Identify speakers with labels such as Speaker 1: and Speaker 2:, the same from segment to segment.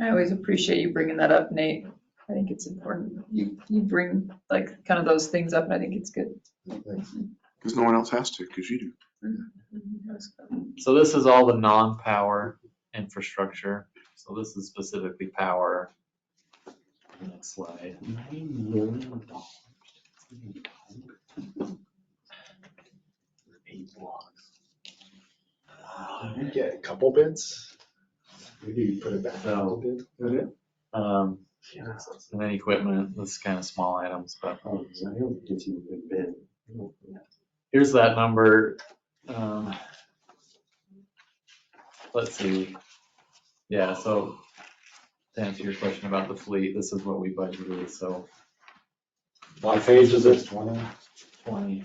Speaker 1: I always appreciate you bringing that up, Nate. I think it's important. You, you bring like kind of those things up and I think it's good.
Speaker 2: Because no one else has to, because you do.
Speaker 3: So this is all the non-power infrastructure. So this is specifically power. Next slide. Nine million dollars. Eight blocks.
Speaker 4: Did we get a couple bids? Maybe you put it back a little bit.
Speaker 3: Um,
Speaker 4: Yeah.
Speaker 3: and then equipment, this is kind of small items, but
Speaker 4: Oh, so I don't give you a good bid.
Speaker 3: here's that number. um, Let's see. Yeah, so to answer your question about the fleet, this is what we budgeted, so
Speaker 4: What phase is this? Twenty?
Speaker 3: twenty.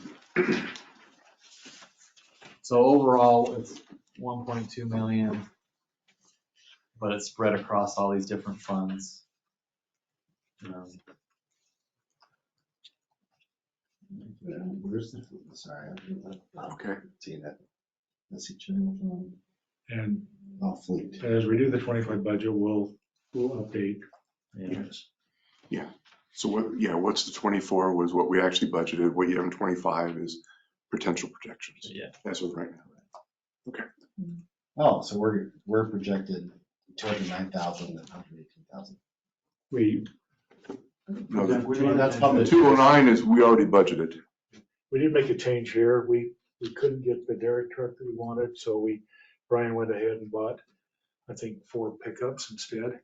Speaker 3: So overall, it's one point two million, but it's spread across all these different funds. Um,
Speaker 4: Where's the, sorry, I'm
Speaker 2: Okay.
Speaker 4: seeing that. That's each channel.
Speaker 5: And
Speaker 4: Oh, fleet.
Speaker 5: as we do the twenty-five budget, we'll, we'll update.
Speaker 3: Yeah,
Speaker 2: So what, yeah, what's the twenty-four was what we actually budgeted, what you have in twenty-five is potential projections,
Speaker 3: yeah.
Speaker 2: as of right now.
Speaker 4: Oh, so we're, we're projected two hundred nine thousand and hundred eighteen thousand.
Speaker 5: We,
Speaker 2: No, the
Speaker 4: That's probably.
Speaker 2: two oh nine is, we already budgeted.
Speaker 6: we did make a change here. We, we couldn't get the derrick truck that we wanted, so we, Brian went ahead and bought, I think, four pickups instead.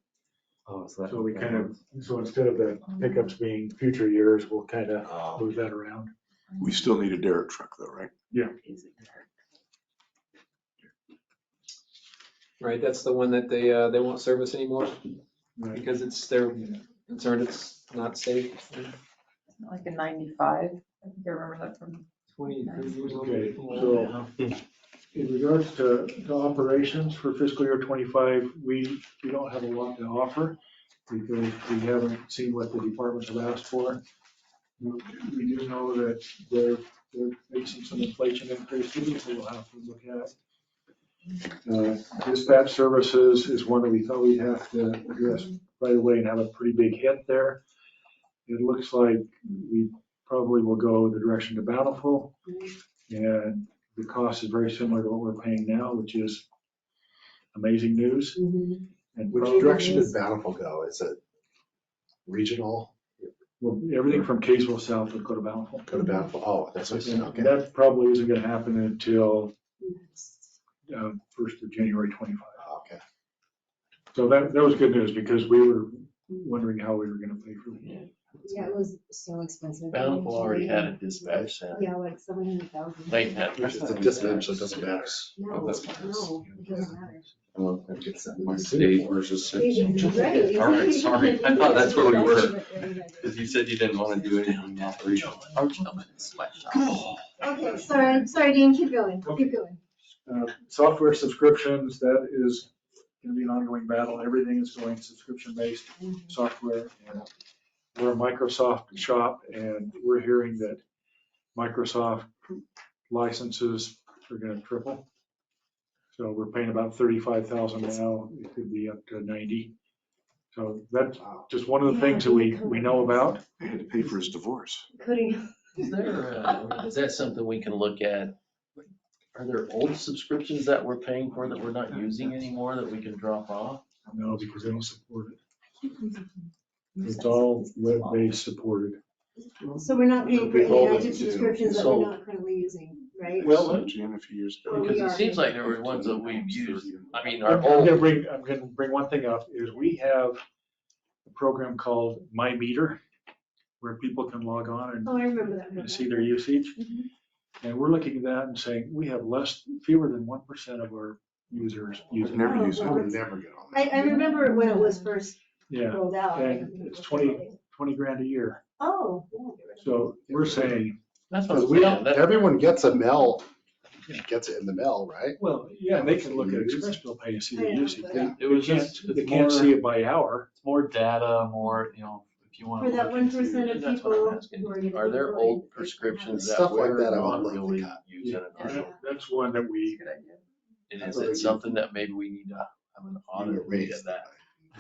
Speaker 3: Oh, so that-
Speaker 6: So we kind of, so instead of the pickups being future years, we'll kind of
Speaker 4: Oh,
Speaker 6: move that around.
Speaker 2: We still need a Derek truck though, right?
Speaker 7: Right, that's the one that they, uh, they won't service anymore because it's, they're concerned it's not safe.
Speaker 1: Like a ninety-five. I think I remember that from.
Speaker 7: Twenty, thirty years old.
Speaker 6: Okay, so- In regards to, to operations for fiscal year twenty-five, we, we don't have a lot to offer because we haven't seen what the departments have asked for. We do know that they're, they're facing some inflation increases that we'll have to look at. Uh, Dispatch services is one that we thought we'd have to address right away and have a pretty big hit there. It looks like we probably will go the direction to Bountiful. And the cost is very similar to what we're paying now, which is amazing news. And
Speaker 4: Which
Speaker 6: probably-
Speaker 4: direction did Bountiful go? Is it regional?
Speaker 6: Well, everything from Kaysville south would go to Bountiful.
Speaker 4: Go to Bountiful? Oh, that's what I said, okay.
Speaker 6: And that probably isn't gonna happen until um, first of January twenty-five.
Speaker 4: Oh, Okay.
Speaker 6: So that, that was good news because we were wondering how we were gonna pay for it.
Speaker 8: Yeah, it was so expensive.
Speaker 9: Bountiful already had a dispatch center.
Speaker 8: Yeah, like seven hundred thousand.
Speaker 9: They had.
Speaker 4: It's a dispatch, so it doesn't matter.
Speaker 8: No, no, it doesn't matter.
Speaker 4: It's a-
Speaker 2: versus
Speaker 8: Right.
Speaker 9: All right, sorry. I thought that's where we were.
Speaker 8: Okay,
Speaker 9: Because you said you didn't want to do anything operational.
Speaker 8: sorry, sorry, Dean, keep going, keep going.
Speaker 6: Uh, Software subscriptions, that is gonna be an ongoing battle. Everything is going subscription-based. software. and We're a Microsoft shop and we're hearing that Microsoft licenses are gonna triple. So we're paying about thirty-five thousand now, it could be up to ninety. So that's just one of the things that we, we know about.
Speaker 2: They had to pay for his divorce.
Speaker 8: Coding,
Speaker 9: Is there, uh, is that something we can look at? Are there old subscriptions that we're paying for that we're not using anymore that we can drop off?
Speaker 6: No, because they don't support it. It's all web-based supported.
Speaker 8: so we're not paying for
Speaker 4: We've all been
Speaker 8: any active
Speaker 4: to do.
Speaker 8: subscriptions that
Speaker 9: So-
Speaker 8: we're not currently using, right?
Speaker 9: Well-
Speaker 2: Jan, a few years ago.
Speaker 9: Because it seems like there were ones that we've used. I mean,
Speaker 6: I'm
Speaker 9: our
Speaker 6: I'm gonna
Speaker 9: old,
Speaker 6: bring, I'm gonna bring one thing up, is we have a program called My Meter, where people can log on and
Speaker 8: Oh, I remember that.
Speaker 6: and see their usage.
Speaker 8: Mhm.
Speaker 6: And we're looking at that and saying, we have less, fewer than one percent of our users
Speaker 2: You've
Speaker 6: using. it.
Speaker 2: never used
Speaker 4: I
Speaker 2: it.
Speaker 4: would never get on that.
Speaker 8: Oh, I, I remember when it was first
Speaker 6: Yeah,
Speaker 8: rolled out.
Speaker 6: And it's 20. twenty grand a year.
Speaker 8: Oh.
Speaker 6: So we're saying,
Speaker 9: that's what
Speaker 4: Because
Speaker 9: I'm
Speaker 4: we
Speaker 9: saying.
Speaker 4: don't,
Speaker 9: That-
Speaker 4: everyone gets a mail, gets it in the mail, right?
Speaker 6: well, yeah, they can look at express bill pay and see their
Speaker 8: Yeah,
Speaker 6: usage.
Speaker 8: but-
Speaker 6: They
Speaker 3: It was
Speaker 6: can't,
Speaker 3: just,
Speaker 6: they
Speaker 3: it's
Speaker 6: can't
Speaker 3: more-
Speaker 6: see it by hour.
Speaker 3: It's more data, more, you know, if you want.
Speaker 8: For that one percent of
Speaker 9: That's what I'm
Speaker 8: people
Speaker 9: asking.
Speaker 8: who are. gonna
Speaker 9: Are there
Speaker 8: be
Speaker 9: old
Speaker 8: employed.
Speaker 9: prescriptions
Speaker 4: Stuff
Speaker 9: that
Speaker 4: like
Speaker 9: we're
Speaker 4: that I
Speaker 9: not
Speaker 4: would like to
Speaker 9: really
Speaker 4: cut.
Speaker 9: using
Speaker 6: And
Speaker 9: anymore?
Speaker 6: that- That's one that we,
Speaker 1: Good idea.
Speaker 9: And is it something that maybe we need to have an audit
Speaker 4: erased
Speaker 9: of that?